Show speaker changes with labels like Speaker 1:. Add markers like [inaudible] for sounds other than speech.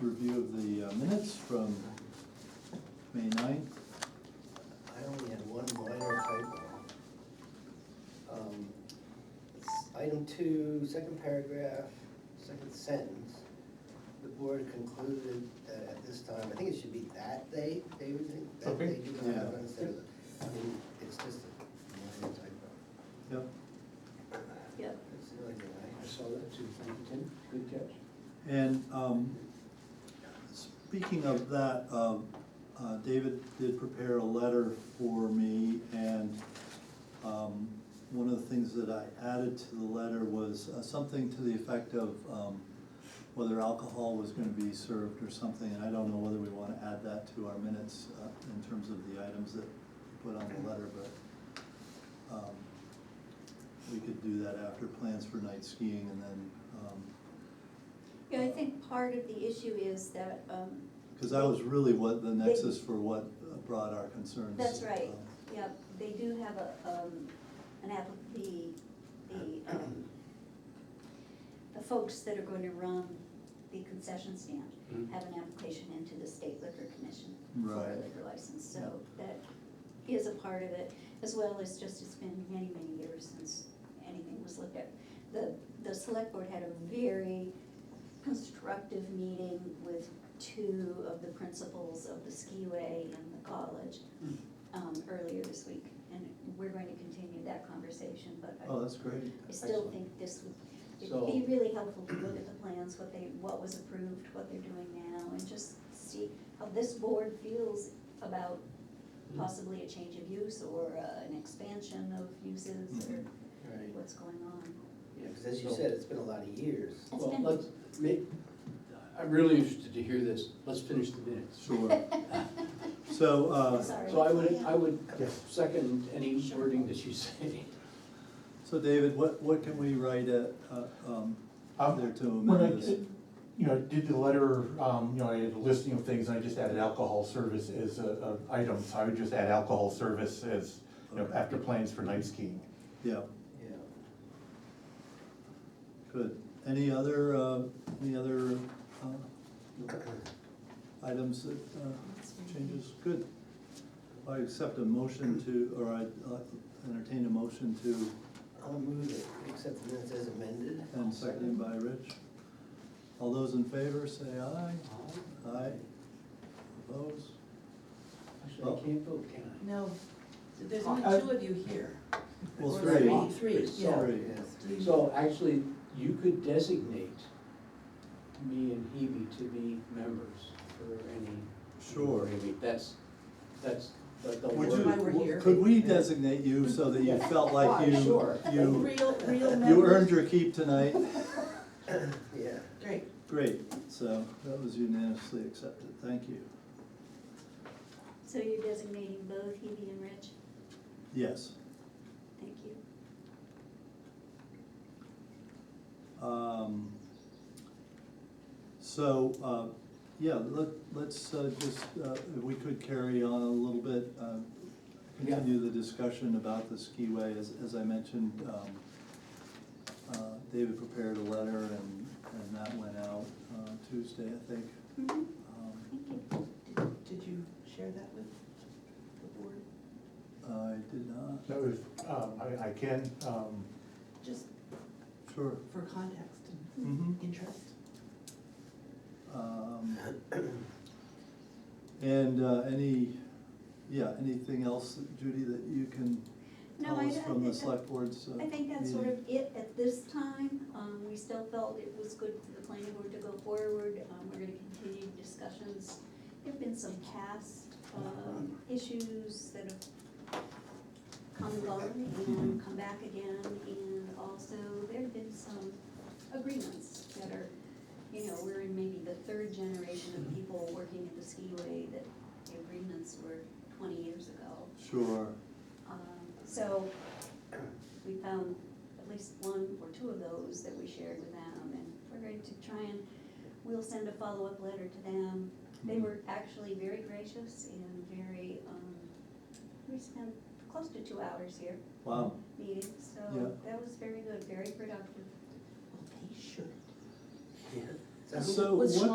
Speaker 1: review of the uh, minutes from May ninth.
Speaker 2: I only had one minor typo. Um, it's Item two, second paragraph, second sentence. The board concluded that at this time, I think it should be that they, they would think that they
Speaker 3: Okay.
Speaker 2: do not have instead of, I mean, it's just a minor typo.
Speaker 1: Yep.
Speaker 4: Yep.
Speaker 2: That's the only thing I-
Speaker 3: I saw that too, thank you, Tim, good catch.
Speaker 1: And um, speaking of that, um, uh, David did prepare a letter for me, and um, one of the things that I added to the letter was uh, something to the effect of um, whether alcohol was gonna be served or something, and I don't know whether we wanna add that to our minutes uh, in terms of the items that put on the letter, but um, we could do that after plans for night skiing and then um,
Speaker 4: Yeah, I think part of the issue is that, um,
Speaker 1: Because that was really what the nexus for what uh, brought our concerns.
Speaker 4: that's right,
Speaker 1: uh,
Speaker 4: yeah, they do have a, um, an app, the, the, um, the folks that are going to run the concession stand
Speaker 3: Mhm.
Speaker 4: have an application into the state liquor commission for a
Speaker 1: Right.
Speaker 4: liquor license, so that is a part of it, as well as just it's been many, many years since anything was looked at. The, the select board had a very constructive meeting with two of the principals of the skiway and the college um, earlier this week, and we're going to continue that conversation, but I
Speaker 1: Oh, that's great.
Speaker 4: I still
Speaker 3: Excellent.
Speaker 4: think this would,
Speaker 3: So-
Speaker 4: it'd be really helpful to look at the plans, what they, what was approved, what they're doing now, and just see how this board feels about possibly a change of use or uh, an expansion of uses or
Speaker 2: Right,
Speaker 4: what's going on.
Speaker 2: yeah, because as you said, it's been a lot of years.
Speaker 4: It's
Speaker 3: Well,
Speaker 4: been-
Speaker 3: let's make, I'm really interested to hear this, let's finish the minutes.
Speaker 1: Sure.
Speaker 4: [laughs]
Speaker 1: So, uh,
Speaker 4: Sorry.
Speaker 3: So I would,
Speaker 4: Yeah.
Speaker 3: I would second any
Speaker 4: Sure.
Speaker 3: wording that you say.
Speaker 1: so David, what, what can we write at, uh, um,
Speaker 5: Um,
Speaker 1: there to
Speaker 5: When I,
Speaker 1: amend this?
Speaker 5: did- you know, I did the letter, um, you know, I had a listing of things, and I just added alcohol service as a, a item, so I would just add alcohol service as, you know, after plans for night skiing.
Speaker 1: Yeah,
Speaker 2: Yeah.
Speaker 1: good. Any other, uh, any other uh,
Speaker 2: [clears throat]
Speaker 1: items that uh, changes? Good. I accept a motion to, or I uh, entertain a motion to,
Speaker 2: I'll move it, except the minutes as amended.
Speaker 1: and seconded by Rich. All those in favor, say aye. Aye. Opposed?
Speaker 3: Actually, I can't vote, can I?
Speaker 6: No, there's
Speaker 3: I-
Speaker 6: only two of you here.
Speaker 1: Uh, Well,
Speaker 6: Or
Speaker 1: three.
Speaker 6: Three, yeah.
Speaker 1: Sorry.
Speaker 2: Yeah.
Speaker 6: Three.
Speaker 3: So actually, you could designate me and Hebe to be members for any.
Speaker 1: Sure.
Speaker 3: I mean, that's, that's the, the
Speaker 1: Would
Speaker 6: That's
Speaker 1: you-
Speaker 6: why
Speaker 3: word.
Speaker 6: we're here.
Speaker 1: Could we designate you so that you felt like
Speaker 3: Why,
Speaker 1: you,
Speaker 3: sure.
Speaker 1: you,
Speaker 6: Real, real members.
Speaker 1: you earned your keep tonight?
Speaker 2: [coughs] Yeah.
Speaker 6: Great.
Speaker 1: Great, so that was unanimously accepted, thank you.
Speaker 4: So you're designating both Hebe and Rich?
Speaker 1: Yes.
Speaker 4: Thank you.
Speaker 1: Um, So, uh, yeah, let, let's uh, just, uh, if we could carry on a little bit, uh, continue the discussion about the skiway. As, as I mentioned, um, uh, David prepared a letter and, and that went out uh, Tuesday, I think.
Speaker 4: Mhm,
Speaker 1: Um,
Speaker 4: Thank you.
Speaker 6: Did- Did you share that with the board?
Speaker 1: I did not,
Speaker 5: That was, um, I, I can, um,
Speaker 6: Just
Speaker 1: sure.
Speaker 6: for context and
Speaker 1: Mm-hmm.
Speaker 6: interest.
Speaker 1: Um, [coughs] And uh, any, yeah, anything else, Judy, that you can
Speaker 4: No,
Speaker 1: tell
Speaker 4: I-
Speaker 1: us
Speaker 4: I
Speaker 1: from the
Speaker 4: think that-
Speaker 1: select board's? uh,
Speaker 4: I think that's sort
Speaker 1: meeting?
Speaker 4: of it at this time. Um, we still felt it was good for the planning board to go forward. Um, we're gonna continue discussions. There've been some past, um, issues that have come and gone and come back again. And also, there've been some agreements that are, you know, we're in maybe the third generation of people working at the skiway that the agreements were twenty years ago.
Speaker 1: Sure,
Speaker 4: Um, So we found at least one or two of those that we shared with them, and we're going to try and, we'll send a follow-up letter to them. They were actually very gracious and very, um, we spent close to two hours here
Speaker 1: wow,
Speaker 4: meeting, so
Speaker 1: Yeah.
Speaker 4: that was very good, very productive.
Speaker 6: Well, they should.
Speaker 2: Yeah.
Speaker 1: So
Speaker 6: Was
Speaker 1: what-
Speaker 6: Sean